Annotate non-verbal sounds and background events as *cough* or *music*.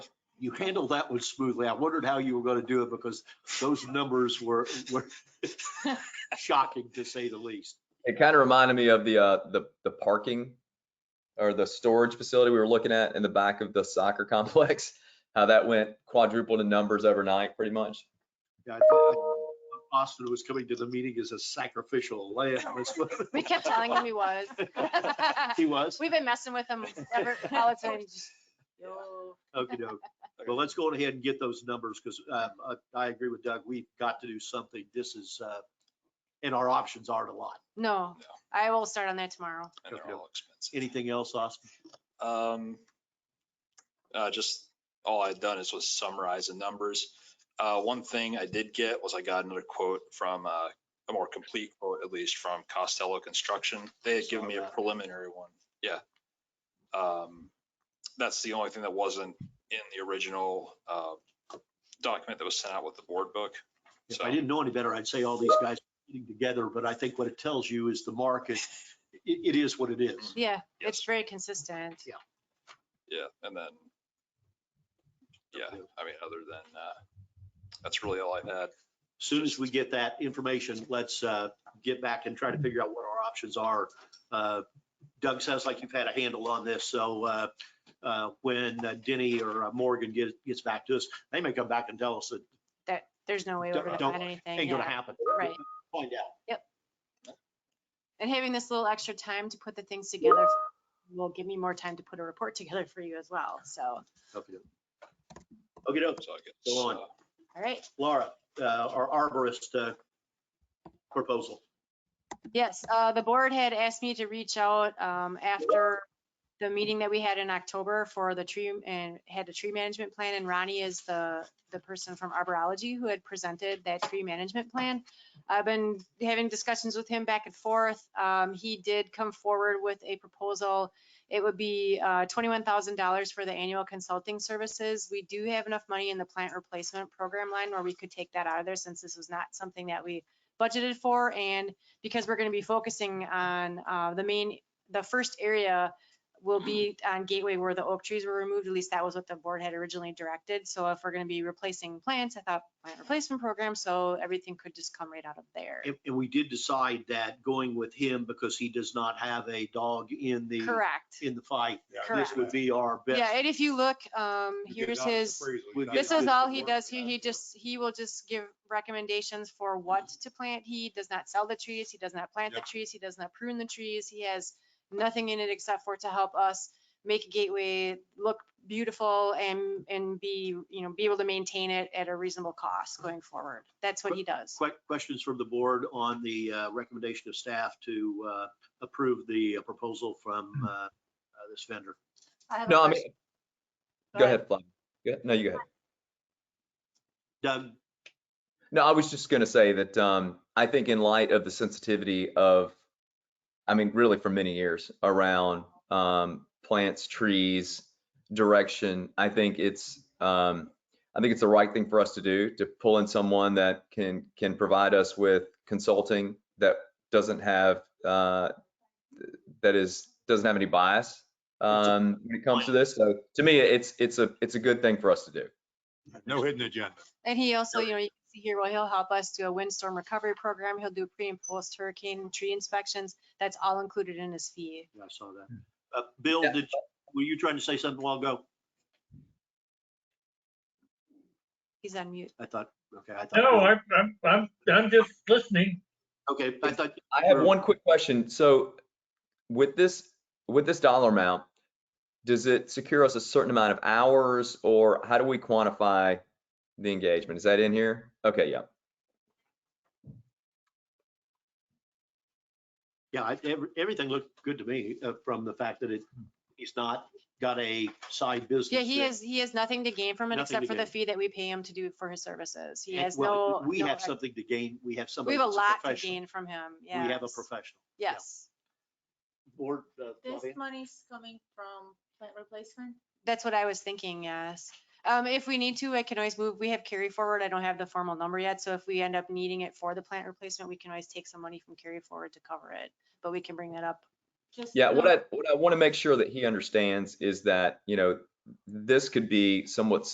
you handled that one smoothly. I wondered how you were going to do it because those numbers were, *laughs* were shocking to say the least. It kind of reminded me of the, uh, the, the parking or the storage facility we were looking at in the back of the soccer *laughs* complex, how that went quadrupled in numbers overnight, pretty much. Yeah, I thought Austin was coming to the meeting as a sacrificial lamb. That's what- *laughs* We kept telling him he was. *laughs* *laughs* He was? We've been messing with him ever, all the time. Just, "Yo." Okay, *laughs* doke. Well, let's go ahead and get those numbers because I I agree with Doug. We've got to do something. This is, uh, and our options aren't a lot. No, No. I will start on that tomorrow. and they're all expensive. Anything else, Austin? Um, uh, just, all I'd done is was summarize the numbers. Uh, one thing I did get was I got another quote from, uh, a more complete quote, at least from Costello Construction. They had given me a Saw that. preliminary one, yeah. Um, that's the only thing that wasn't in the original, uh, document that was sent out with the board book. If So, I didn't know any better, I'd say all these guys are getting together, but I think what it tells you is the market, it, it is what it is. Yeah, Yes. it's very consistent. yeah, and then, yeah, I mean, other than, uh, that's really all I had. Soon as we get that information, let's uh, get back and try to figure out what our options are. Uh, Doug, sounds like you've had a handle on this, so uh, uh, when uh, Denny or uh, Morgan gets, gets back to us, they may come back and tell us that That, there's no way we're Don't- gonna don't- find anything. ain't gonna yeah. happen. Right. Find out. And having this little extra time to put the things together will give me more time to put a report together for you as well. So, all Okay. Okay, doke. So I guess, Go on. uh, right. Laura, uh, our arborist uh, proposal. Yes, uh, the board had asked me to reach out, um, after the meeting that we had in October for the tree and had a tree management plan and Ronnie is the, the person from arborology who had presented that tree management plan. I've been having discussions with him back and forth. Um, he did come forward with a proposal. It would be, uh, twenty-one thousand dollars for the annual consulting services. We do have enough money in the plant replacement program line where we could take that out of there since this was not something that we budgeted for and because we're going to be focusing on uh, the main, the first area will be on Gateway where the oak trees were removed. At least that was what the board had originally directed. So if we're going to be replacing plants, I thought plant replacement program, so everything could just come right out of there. And, and we did decide that going with him because he does not have a dog in the, Correct. in the fight. This Correct. would be our best. Yeah, and if you look, um, here's his, would get this is good all he does. He, he just, he will just give recommendations for what Mm-hmm. to plant. He does not sell the trees. He does not plant the trees. He does not prune the trees. He has nothing in it except for to help us make Gateway look beautiful and, and be, you know, be able to maintain it at a reasonable cost Mm-hmm. going forward. That's what he does. Quick questions from the board on the uh, recommendation of staff to uh, approve the proposal from Hmm. uh, uh, this vendor. Oh, No, I mean, go ahead, Flavia. Go ahead. No, you go ahead. Doug, No, I was just going to say that um, I think in light of the sensitivity of, I mean, really for many years around um, plants, trees, direction, I think it's, um, I think it's the right thing for us to do to pull in someone that can can provide us with consulting that doesn't have uh, that is doesn't have any bias um, when it comes to this. So to me, it's it's a it's a good thing for us to do. No hidden agenda. And he also, you know, you can see here, well, he'll help us do a windstorm recovery program. He'll do pre and post hurricane tree inspections. That's all included in his fee. I saw that. Uh, Bill, Yeah. did, were you trying to say something a while ago? He's on mute. I thought, okay, I thought. No, I'm, I'm, I'm, I'm just listening. Okay, I thought, I have Or- one quick question. So with this, with this dollar amount, does it secure us a certain amount of hours or how do we quantify the engagement? Is that in here? Okay, yeah. yeah, I- every- everything looked good to me uh, from the fact that it, he's not got a side business. Yeah, he that- has, he has nothing to gain from it Nothing to except for the gain. fee that we pay him to do for his services. He And- has well, no. We no have ex- something to gain. We have somebody. We have a that's lot to professional. gain from him. We Yeah. have a professional. yeah. Yes. Board, uh, This Flavia? money's coming from plant replacement? That's what I was thinking, yes. Um, if we need to, I can always move, we have carry forward, I don't have the formal number yet, so if we end up needing it for the plant replacement, we can always take some money from carry forward to cover it, but we can bring that up. Just Yeah, what no- I, what I want to make sure that he understands is that, you know, this could be somewhat